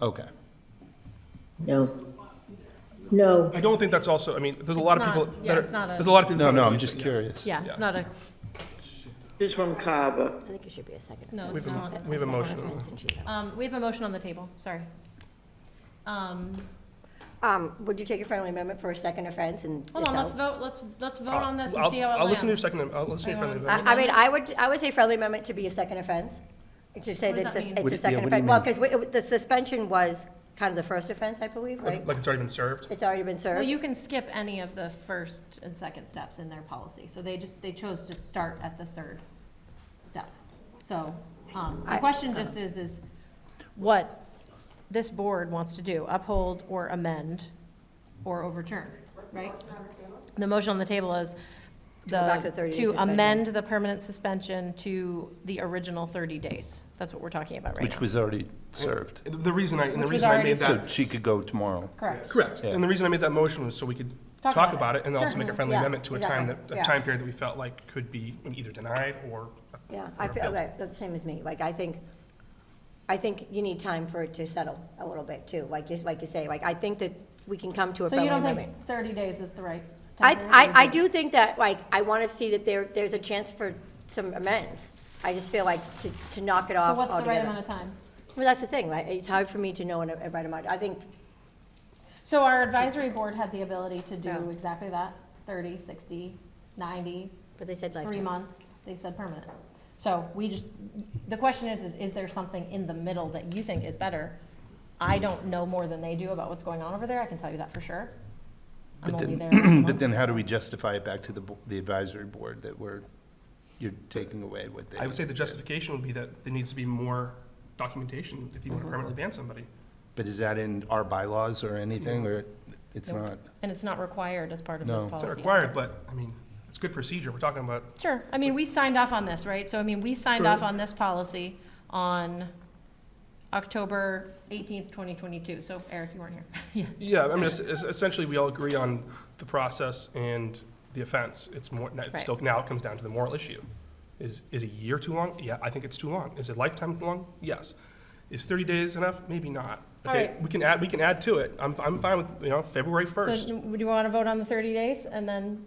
Okay. No. No, I don't think that's also, I mean, there's a lot of It's people. not- yeah, that are- it's not a- There's a lot of people. No, that no, don't I'm use just it, yeah. curious. Yeah, it's not a, She's from Carver. I think it should be a second. no, it's We have a- not. we have a motion. Um, we have a motion on the table, sorry. Um, Um, would you take a friendly amendment for a second offense and? hold on, it's let's out? vote, let's, let's vote I'll- on this and Uh, I'll- see how it lands. I'll listen to your second, I'll listen to your Hang on. friendly amendment. I, I mean, I would, I would say friendly amendment to be a second offense, to say What does that that it's mean? a- What it's do- a yeah, second what do you offense. Well, because the suspension was kind of the first offense, I believe, right? Like it's already been served. It's already been Well, served. you can skip any of the first and second steps in their policy, so they just, they chose to start at the third step. So, um, the I- question just is, is what this board wants to do, uphold or amend or overturn, right? The motion on the table is go back the, to 30 days to suspension. amend the permanent suspension to the original thirty days. That's what we're talking about right Which now. was already served. The reason I, and the Which was reason I already made So that, she could go tomorrow. Correct. correct. Yeah. And the reason I made that motion was so we could Talk talk about about it and Sure. also make a friendly Yeah, amendment to a time that, exactly. a Yeah. time period that we felt like could be either denied or. Yeah, I or feel, appealed. like, the same as me, like, I think, I think you need time for it to settle a little bit too, like, you like you say, like, I think that we can come to a So you friendly don't amendment. think thirty days is the right? I, time period? I, I do think that, like, I want to see that there, there's a chance for some amends. I just feel like to, to knock it So off what's the right altogether. amount of time? Well, that's the thing, right? It's hard for me to know in a, right amount. I think, So our advisory board had the ability to do Yeah. exactly that, 30, 60, 90, but they said three lifetime. months, they said permanent. So we just, the question is, is, is there something in the middle that you think is better? I don't know more than they do about what's going on over there, I can tell you that for sure. I'm But only then, there last month. but then how do we justify it back to the, bo- the advisory board that we're, you're taking away what they? I would say the justification would be that there needs to be more documentation if you want to permanently ban somebody. But is that in our bylaws or anything, or it's Nope. not? And it's not required as part of this No. It's policy. It's not required, but, I mean, it's good procedure. We're talking about Sure, I mean, we signed off on this, right? So, I mean, we signed off on this policy on October eighteenth, twenty twenty-two, so Eric, you weren't here. Yeah. Yeah, I mean, es- es- essentially, we all agree on the process and the offense. It's more, now- it's still, now it comes down to the moral issue. Is, is a year too long? Yeah, I think it's too long. Is a lifetime too long? Yes. Is thirty days enough? Maybe not. All Okay, right. We can add, we can add to it. I'm, I'm fine with, you know, February So, first. do you want to vote on the thirty days, and then,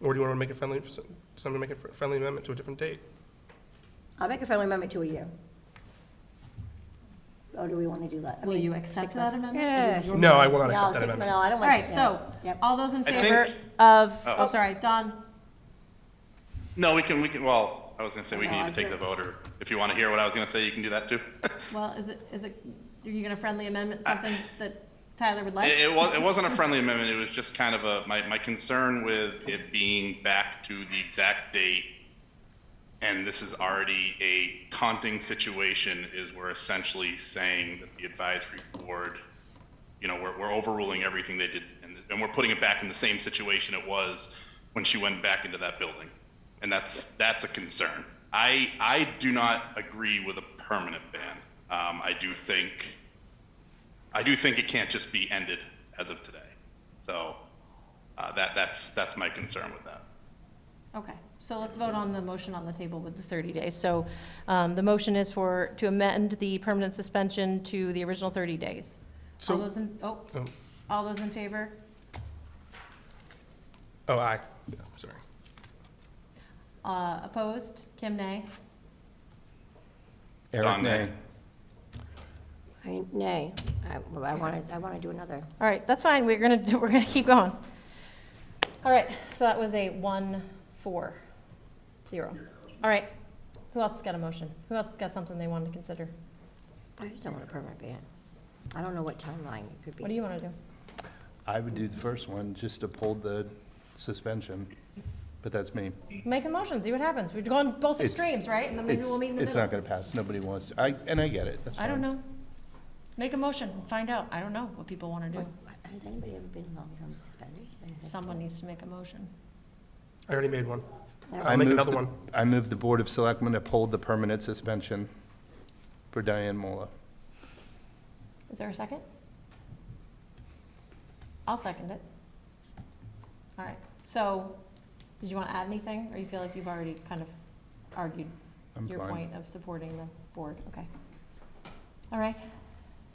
Or do you want to make a friendly, somebody make a fr- friendly amendment to a different date? I'll make a friendly amendment to a year. Or do we want to do that? I will mean, you six accept that months. amendment? Yes. No, I will not No, accept that six- amendment. No, I don't All like. right, yeah. so, Yep. all those in I favor think- of, Oh. oh, sorry, Don, No, we can, we can, well, I was gonna say we No, can I either take the think- vote or if you wanna hear what I was gonna say, you can do that too. well, is it, is it, are you going to friendly amendment something that Tyler would like? Uh, It, it was, it wasn't a friendly amendment, it was just kind of a, my, my concern with it being back to the exact date. And this is already a taunting situation is we're essentially saying that the advisory board, you know, we're, we're overruling everything they did and, and we're putting it back in the same situation it was when she went back into that building. And that's, that's a concern. I, I do not agree with a permanent ban. Um, I do think, I do think it can't just be ended as of today. So uh, that that's that's my concern with that. Okay, so let's vote on the motion on the table with the 30 days. So um, the motion is for, to amend the permanent suspension to the original 30 days. All So- those in, oh, Oh, all those in favor? oh, aye. Yeah, sorry. Uh, Opposed? Kim, nay? Eric, Don, nay. nay. I- Nay, I, I want to, I want to do another. All right, that's fine, we're gonna, do- we're gonna keep going. All right, so that was a one, four, zero. All right, who else has got a motion? Who else has got something they wanted to consider? I just don't want a permanent ban. I don't know what timeline it could be. What do you want to do? I would do the first one, just uphold the suspension, but that's me. Make a motion, see what happens. We've gone both It's- extremes, right? And then maybe It's, we'll meet in the middle. it's not gonna pass, nobody wants, to. I, and I get it, that's I don't fine. know. Make a motion, find out. I don't know what people want to do. Has anybody ever been long-term suspended? Someone needs to make a motion. I already made one. Yeah. I'll I make move another the- one. I move the Board of Selectmen uphold the permanent suspension for Diane Mola. Is there a second? I'll second it. All right, so, did you want to add anything, or you feel like you've already kind of argued I'm your fine. point of supporting the board? Okay. All right,